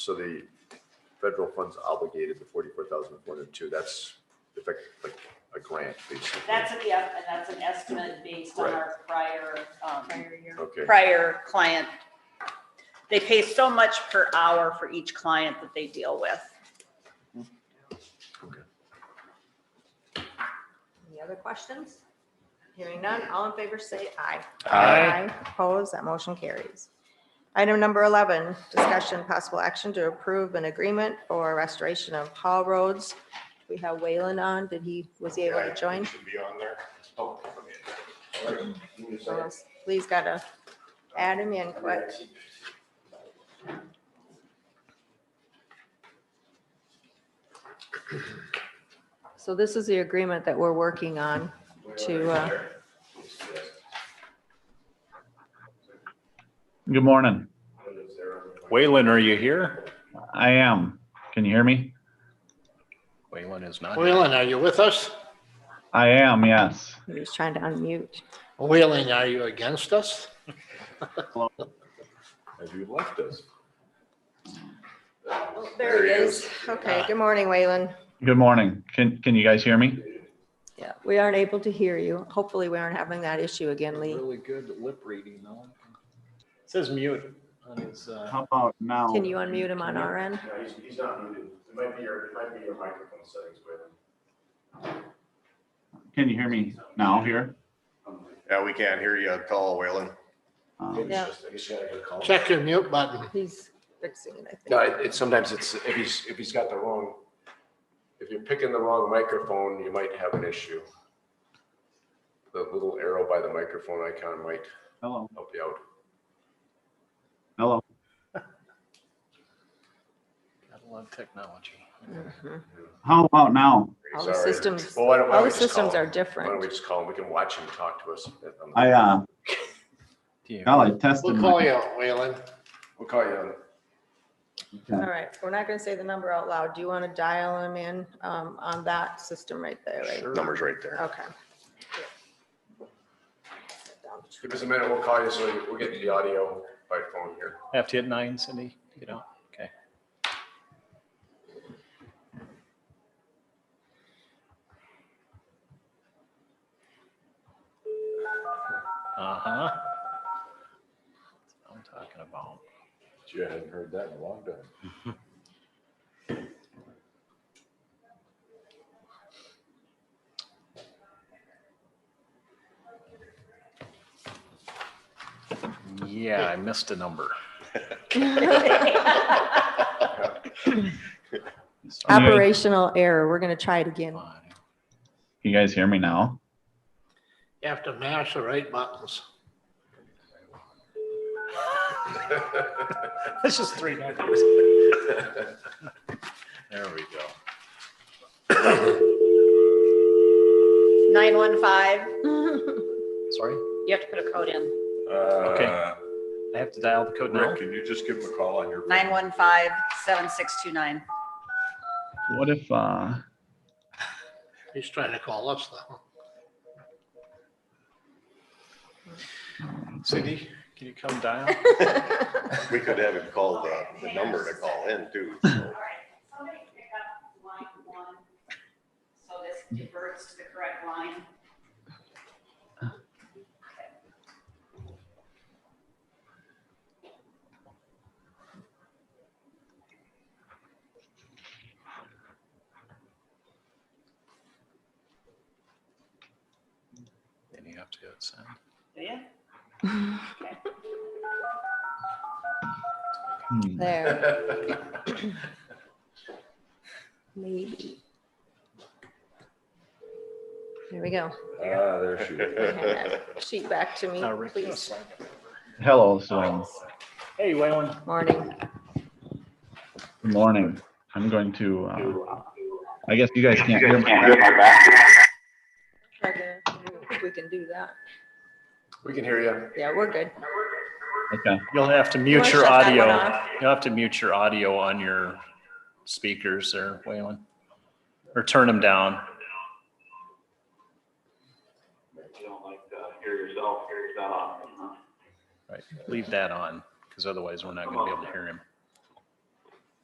So the federal funds obligated, the forty-four thousand four hundred two, that's effectively like a grant, basically. That's, a- yeah, and that's an estimate based on our prior, um, Okay, prior client. They pay so much per hour for each client that they deal with. Any other questions? Hearing none, all in favor say aye. Aye. Opposed, that motion carries. Item number 11, discussion, possible action to approve an agreement for restoration of Hall Roads. We have Waylon on, did he, was he able to join? Should be on there. Oh, okay. Give me a second. Please gotta add him in quick. So this is the agreement that we're working on to, uh, Good morning. Waylon, are you here? I am. Can you hear me? Waylon is not. here. Whalen, are you with us? I am, yes. he was trying to unmute. Whalen, are you against us? have you left us? There he is. Okay, good morning, Waylon. Good morning. Can, can you guys hear me? Yeah, we aren't able to hear you. Hopefully, we aren't having that issue again, Lee. Really good lip reading though. It says mute on his, uh, How about now? Can you unmute him on our end? No, he's, he's not muted. It might be your, it might be your microphone settings, but. Can you hear me now here? Yeah, we can't hear you at all, Waylon. Uh, Yeah. check your mute button. He's fixing it, I think. No, it, it, sometimes it's, if he's, if he's got the wrong, if you're picking the wrong microphone, you might have an issue. The little arrow by the microphone icon might Hello, help you out. hello. Gotta love technology. Mhm. How about now? All the Sorry. systems, Well, why don't- why don't all the we just call systems him? are Why don't we different. just call him? We can watch him talk to us. Um, I, uh, Yeah. golly, I tested. We'll my- call you out, Whalen. We'll call you on it. All right, we're not gonna say the number out loud. Do you want to dial him in um, on that system right there, right? Number's right there. Okay. Give us a minute, we'll call you, so we'll get the audio by phone here. Have to hit nine, Cindy, you know? Okay. Uh-huh. That's what I'm talking about. You haven't heard that in a long time. Yeah, I missed a number. Can you guys- Operational error. We're gonna try it again. Fine. You guys hear me now? You have to mash the right buttons. That's just three numbers. There we go. 915, Sorry, you have to put a code in. Okay. I have to dial the code now. Uh, can you just give him a call on your? 915-7629. What if, uh, He's trying to call us though. Cindy, can you come dial? We could have him call the, the number to call in too. All right, somebody pick up line one, so this diverts to the correct line. Then you have to hit send. Do you? hmm, There, Ah, maybe. There we go. Ah, there she is. Hand that Sheet back to me, Now, Rick, you Oh, please. assign it. hello, so, Hey, Waylon. Morning. good morning. I'm going to, uh, I guess you guys can't hear me. If we can do that. We can hear you. Yeah, we're good. Okay, You'll have to You wanna mute your shut that one audio. off? You'll have to mute your audio on your speakers there, Waylon. Or turn them down. You don't like to hear yourself, hear yourself. Right, leave that on, because otherwise we're not gonna be able to hear him.